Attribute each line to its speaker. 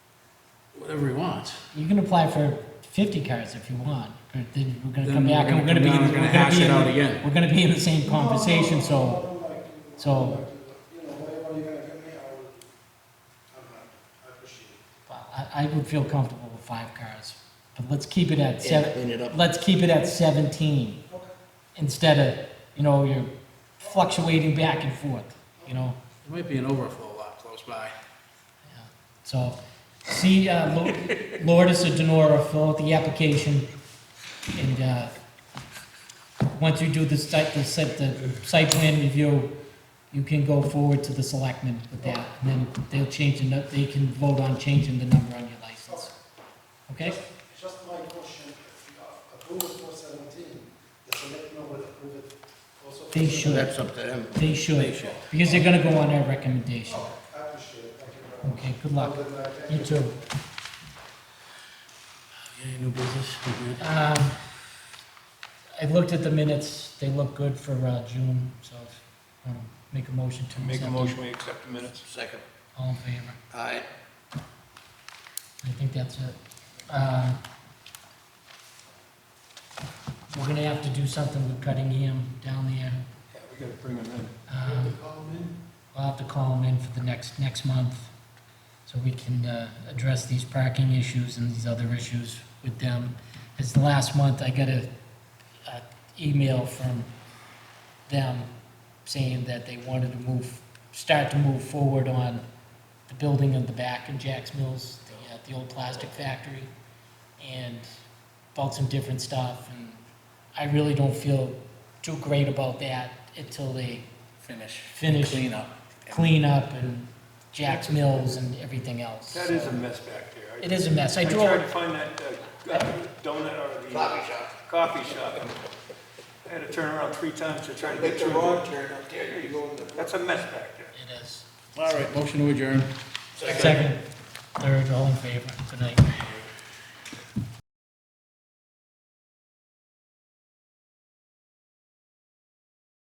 Speaker 1: whatever he wants.
Speaker 2: You can apply for fifty cars if you want, but then we're gonna
Speaker 1: Then
Speaker 2: come back and we're gonna be,
Speaker 1: come down
Speaker 2: in- we're
Speaker 1: and
Speaker 2: gonna be
Speaker 1: hash it
Speaker 2: in the-
Speaker 1: out again.
Speaker 2: We're gonna be in the same conversation, so, so,
Speaker 3: You know, whatever you're gonna give me, I will, I'm not, I appreciate it.
Speaker 2: I, I would feel comfortable with five cars. But let's keep it at
Speaker 4: and
Speaker 2: seven,
Speaker 4: clean it up.
Speaker 2: let's keep it at seventeen, instead of, you know, you're fluctuating back and forth, you know?
Speaker 1: There might be an overflow lot close by.
Speaker 2: So, see, uh, Lo- Lourdes or Denora, fill out the application, and, uh, once you do the site, the site, the site plan review, you can go forward to the selectmen with that, and then they'll change the, nu- they can vote on changing the number on your license. Okay?
Speaker 3: Just- Just my question, if you approve it for seventeen, the selectmen will approve it also. for
Speaker 2: They should,
Speaker 4: That's up to him.
Speaker 2: they should,
Speaker 1: should.
Speaker 2: because they're gonna go on our recommendation.
Speaker 3: 17. I appreciate it, thank you very much.
Speaker 2: Okay, good luck.
Speaker 3: Have a good night, thank
Speaker 2: You too.
Speaker 1: Any new business? We good?
Speaker 2: Um, I looked at the minutes, they look good for uh, June, so um, make a motion to
Speaker 5: Make a
Speaker 2: accept them.
Speaker 5: motion, we accept the minutes.
Speaker 4: Second.
Speaker 2: All in favor?
Speaker 4: Aye.
Speaker 2: I think that's it. Uh, We're gonna have to do something with Cunningham down there.
Speaker 5: Yeah, we gotta bring them in.
Speaker 2: Um, We'll have to call them in for the next, next month, so we can uh, address these parking issues and these other issues with them. As the last month, I got a, a email from them saying that they wanted to move, start to move forward on the building in the back in Jack's Mills, the, uh, the old plastic factory, and about some different stuff, and I really don't feel too great about that until they
Speaker 1: Finish.
Speaker 2: Finish.
Speaker 1: Clean up.
Speaker 2: cleanup and Jack's Mills and everything else.
Speaker 5: That is a mess back there. I-
Speaker 2: It is a mess. I
Speaker 5: I
Speaker 2: drove,
Speaker 5: tried to find that uh, uh, donut or the. Coffee shop. Coffee shop. I had to turn around three times to try to get
Speaker 4: Make the
Speaker 5: through.
Speaker 4: wrong
Speaker 5: it.
Speaker 4: turn up there, you go in the.
Speaker 5: That's a mess back there.
Speaker 2: it is.
Speaker 1: All right, motion to adjourn.
Speaker 2: Second, third, all in favor, good night.